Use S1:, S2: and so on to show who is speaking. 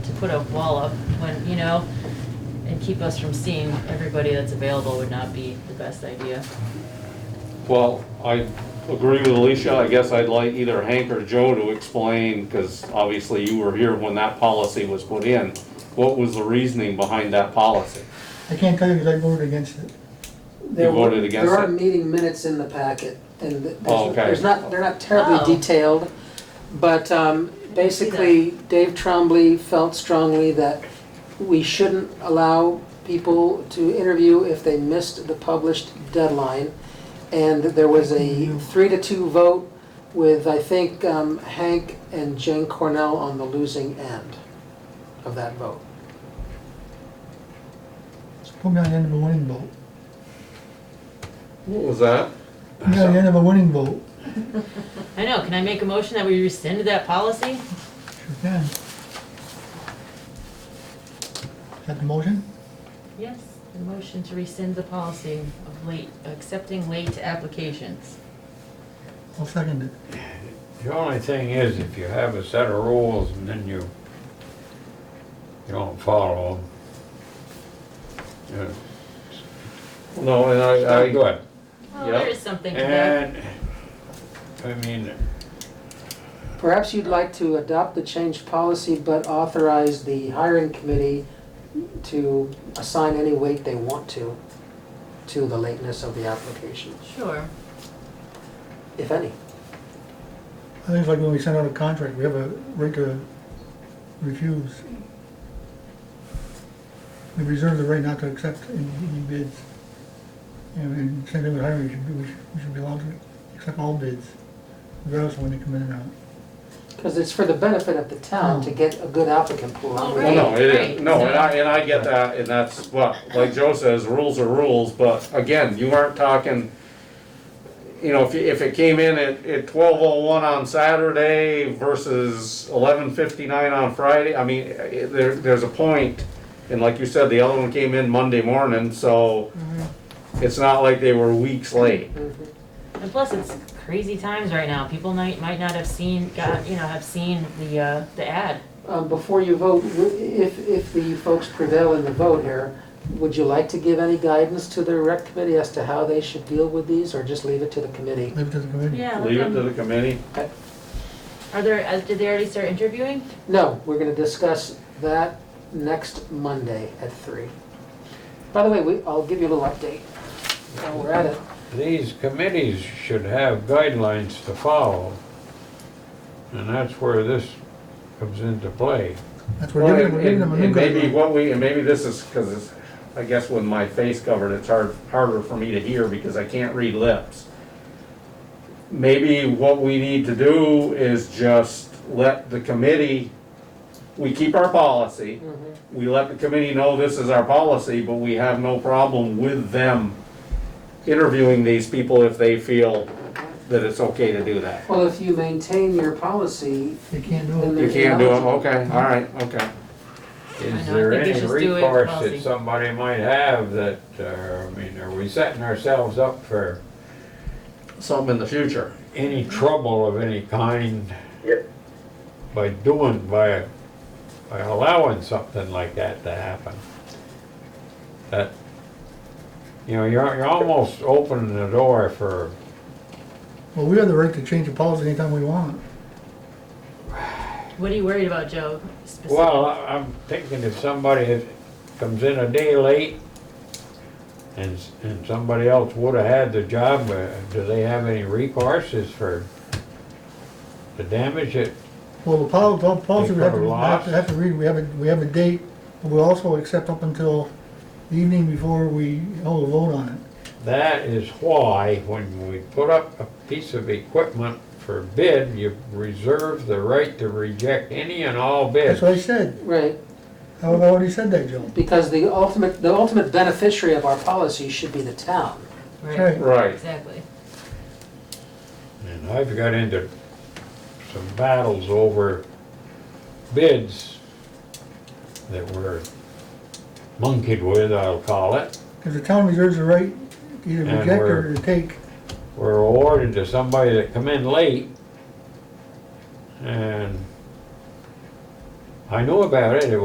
S1: to put a wall up when, you know, and keep us from seeing everybody that's available would not be the best idea.
S2: Well, I agree with Alicia, I guess I'd like either Hank or Joe to explain, because obviously you were here when that policy was put in. What was the reasoning behind that policy?
S3: I can't tell you because I voted against it.
S4: There were-
S2: voted against
S4: There are
S2: it?
S4: meeting minutes in the packet, and th-
S2: Oh,
S4: there's
S2: okay.
S4: there's not, they're not terribly
S1: Oh.
S4: detailed, but um, basically, Dave Trombley felt strongly that we shouldn't allow people to interview if they missed the published deadline, and there was a three to two vote with, I think, um, Hank and Jane Cornell on the losing end of that vote.
S3: So Put me on the end of a winning vote.
S2: What was that?
S3: Put me on the end of a winning vote.
S1: I know, can I make a motion that we rescind that policy?
S3: Sure can. Is that the motion?
S1: Yes, a motion to rescind the policy of late, accepting late applications.
S3: I'll second it.
S5: The only thing is, if you have a set of rules and then you, you don't follow them,
S2: No, and
S5: it's not
S2: I, I,
S5: good.
S1: Well, Oh, there
S2: Yep.
S1: is something to that.
S5: And, I mean,
S4: Perhaps you'd like to adopt the changed policy, but authorize the hiring committee to assign any weight they want to, to the lateness of the application,
S1: Sure,
S4: if any.
S3: I think it's like when we send out a contract, we have a right to refuse. We reserve the right not to accept any any bids. And- And same thing with hiring, we should, be- we should- we should be allowed to accept all bids, regardless of when they come in or out.
S4: Because it's for the benefit of the town to get a good applicant pool.
S1: Oh,
S2: well, no, it
S1: Right,
S2: is, no,
S1: right.
S2: and I, and I get that, and that's what, like Joe says, rules are rules, but again, you aren't talking, you know, if, if it came in at, at twelve oh one on Saturday versus eleven fifty-nine on Friday, I mean, eh, there, there's a point. And like you said, the other one came in Monday morning, so
S1: Mm-hmm.
S2: it's not like they were weeks late.
S4: Mhm.
S1: and plus it's crazy times right now, people might, might not have seen, got, you know, have seen the, uh, the ad.
S4: Um, Before you vote, w- if, if the folks prevail in the vote here, would you like to give any guidance to the rec committee as to how they should deal with these, or just leave it to the committee?
S3: Leave it to the committee.
S1: Yeah. let
S2: Leave it
S1: them-
S2: to the committee.
S1: Are there, uh, did they already start interviewing?
S4: No, we're gonna discuss that next Monday at three. By the way, we, I'll give you a little update. While we're at it,
S5: these committees should have guidelines to follow. And that's where this comes into play.
S3: That's what
S2: Well,
S3: we're giving,
S2: and,
S3: we're giving them
S2: and
S3: a new
S2: and maybe
S3: guideline.
S2: what we, and maybe this is, cause it's, I guess with my face covered, it's hard, harder for me to hear because I can't read lips. Maybe what we need to do is just let the committee, we keep our policy. We let the committee know this is our policy, but we have no problem with them interviewing these people if they feel that it's okay to do that.
S4: well, if you maintain your policy,
S3: They can't do
S4: then
S3: it.
S4: they're
S2: You can't do it,
S4: eligible.
S2: okay, all right, okay.
S1: I
S5: Is
S1: know, I
S5: there
S1: think they
S5: any
S1: should do it
S5: recourse
S1: policy.
S5: that somebody might have that, uh, I mean, are we setting ourselves up for
S2: Some in the future.
S5: any trouble of any kind
S6: Yep.
S5: by doing, by, by allowing something like that to happen. That, you know, you're, you're almost opening the door for,
S3: Well, we have the right to change the policy anytime we want.
S1: What are you worried about, Joe? specifically?
S5: well, I- I'm thinking if somebody had- comes in a day late and, s- and somebody else would have had the job, uh, do they have any recourses for the damage that
S3: Well, the pol- the policy, we have to,
S5: They
S3: we have to-
S5: cover
S3: have to read, we have a, we have a date, but we also accept up until the evening before we hold a vote on it.
S5: That is why when we put up a piece of equipment for bid, you reserve the right to reject any and all
S3: That's
S5: bids.
S3: what I said.
S4: right,
S3: I've already said that, Joe.
S4: because the ultimate, the ultimate beneficiary of our policy should be the town.
S3: Right.
S2: Right.
S1: Exactly.
S5: And I've got into some battles over bids that were monkeyed with, I'll call it,
S3: Because the town reserves the right to either
S5: And
S3: reject or
S5: we're-
S3: to take.
S5: were awarded to somebody that come in late. And I know about it, it